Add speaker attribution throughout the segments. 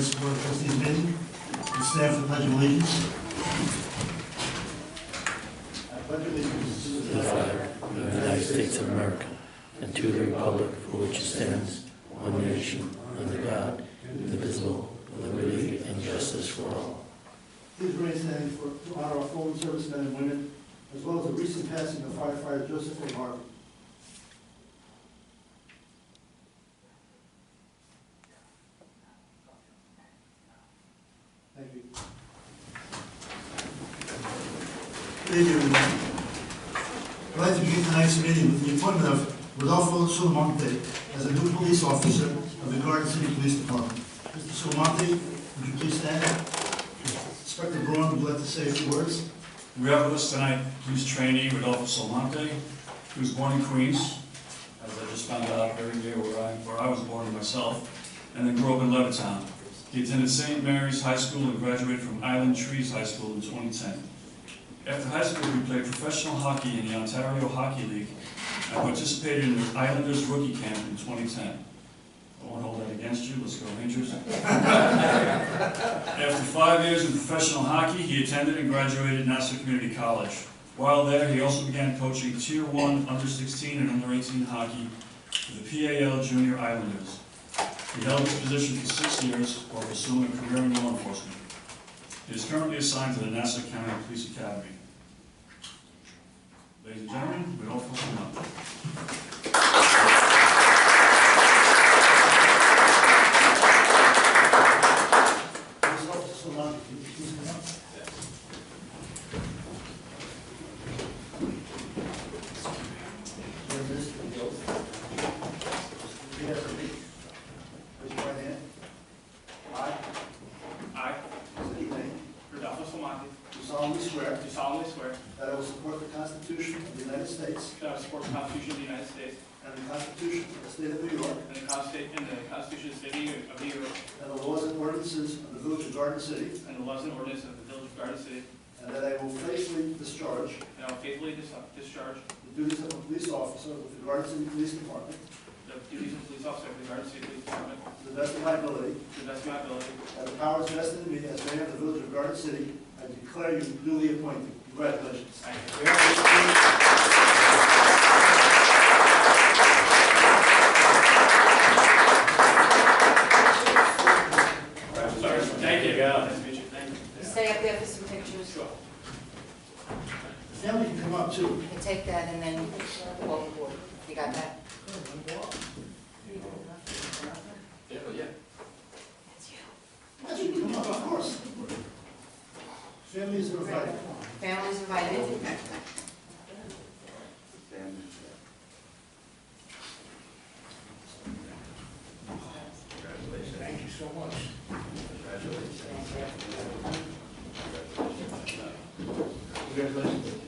Speaker 1: Support trustee Benton, and staff with pledge of allegiance.
Speaker 2: of the United States of America and to the republic for which it stands, one nation, under God, indivisible, with liberty and justice for all.
Speaker 1: Please raise your hand for, to honor our fallen servicemen and women, as well as the recent passing of firefighter Joseph A. Harvey. Thank you. Thank you, everyone. I'd like to begin tonight's meeting with the appointment of Rodolfo Sulamonte as a new police officer of the Garden City Police Department. Mr. Sulamonte, would you please stand? Inspector Braun would like to say a few words.
Speaker 3: We have with us tonight police trainee Rodolfo Solante, who was born in Queens, as I just found out every year where I, where I was born myself, and then grew up in Levittown. He attended St. Mary's High School and graduated from Island Trees High School in 2010. After high school, he played professional hockey in the Ontario Hockey League and participated in the Islanders rookie camp in 2010. I won't hold that against you, let's go Rangers. After five years in professional hockey, he attended and graduated Nassau Community College. While there, he also began coaching Tier 1 under-16 and under-18 hockey for the PAL Junior Islanders. He held this position for six years while pursuing a career in law enforcement. He is currently assigned to the Nassau County Police Academy. Ladies and gentlemen, we all full up.
Speaker 1: Please, Officer Solano, could you please come up? Swear this to the oath. Repeat after me. Raise your right hand. I,
Speaker 4: I,
Speaker 1: state your name,
Speaker 4: Rodolfo Salmonte,
Speaker 1: do solemnly swear
Speaker 4: do solemnly swear
Speaker 1: that I will support the Constitution of the United States
Speaker 4: that I will support the Constitution of the United States
Speaker 1: and the Constitution of the State of New York
Speaker 4: and the Consti- and the Constitution of the State of New York- of New York
Speaker 1: and the laws and ordinances of the Village of Garden City,
Speaker 4: and the laws and ordinances of the Village of Garden City,
Speaker 1: and that I will faithfully discharge
Speaker 4: and I will faithfully dis- discharge
Speaker 1: the duties of a police officer with the Garden City Police Department
Speaker 4: the duties of police officer of the Garden City Police Department
Speaker 1: To the best of my ability,
Speaker 4: to the best of my ability.
Speaker 1: and the powers vested in me as mayor of the village of Garden City, I declare you duly appointed. Congratulations.
Speaker 4: Thank you. Sorry, thank you. Nice to meet you, thank you.
Speaker 5: Stay up there for some pictures.
Speaker 4: Sure.
Speaker 1: Now we can come up too.
Speaker 5: You can take that and then walk forward. You got that?
Speaker 1: Yes, you can come up, of course. Families are invited.
Speaker 5: Families invited.
Speaker 1: Congratulations.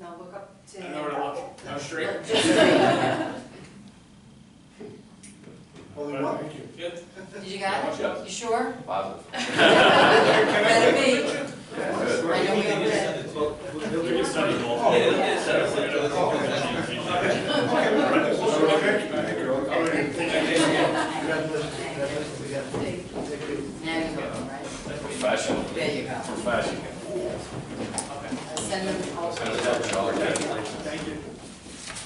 Speaker 5: No, look up to.
Speaker 4: I know where to look. No, straight.
Speaker 5: Look, just straight.
Speaker 1: Only one.
Speaker 4: Good.
Speaker 5: Did you got it? You sure?
Speaker 6: Positive.
Speaker 5: Better be. I know we all did.
Speaker 3: We can send it all.
Speaker 4: Oh.
Speaker 6: Yeah, it'll get set up.
Speaker 1: Congratulations. Congratulations again. Thank you.
Speaker 5: Now you go, right?
Speaker 6: Professional.
Speaker 5: There you go.
Speaker 6: Professional.
Speaker 5: I'll Send them all.
Speaker 6: Send it out, y'all.
Speaker 4: Thank you.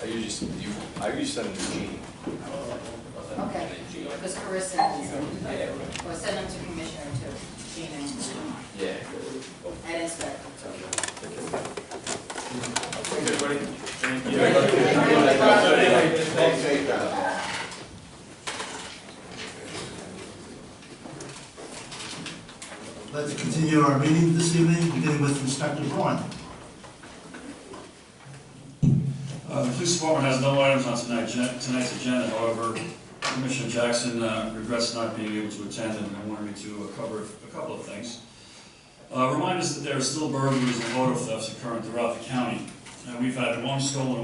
Speaker 6: I usually, you, I usually send it to Gene.
Speaker 5: Okay. Because Carissa has them. Or send them to Commissioner too. Gina and-
Speaker 6: Yeah.
Speaker 5: and Inspector.
Speaker 1: Let's continue our meeting this evening, beginning with Inspector Braun.
Speaker 3: Uh, The police department has no items on tonight- tonight's agenda, however, Commissioner Jackson uh, regrets not being able to attend and I wanted me to uh, cover a couple of things. Uh, Remind us that there are still burglaries and auto thefts occurring throughout the county. And we've had one stolen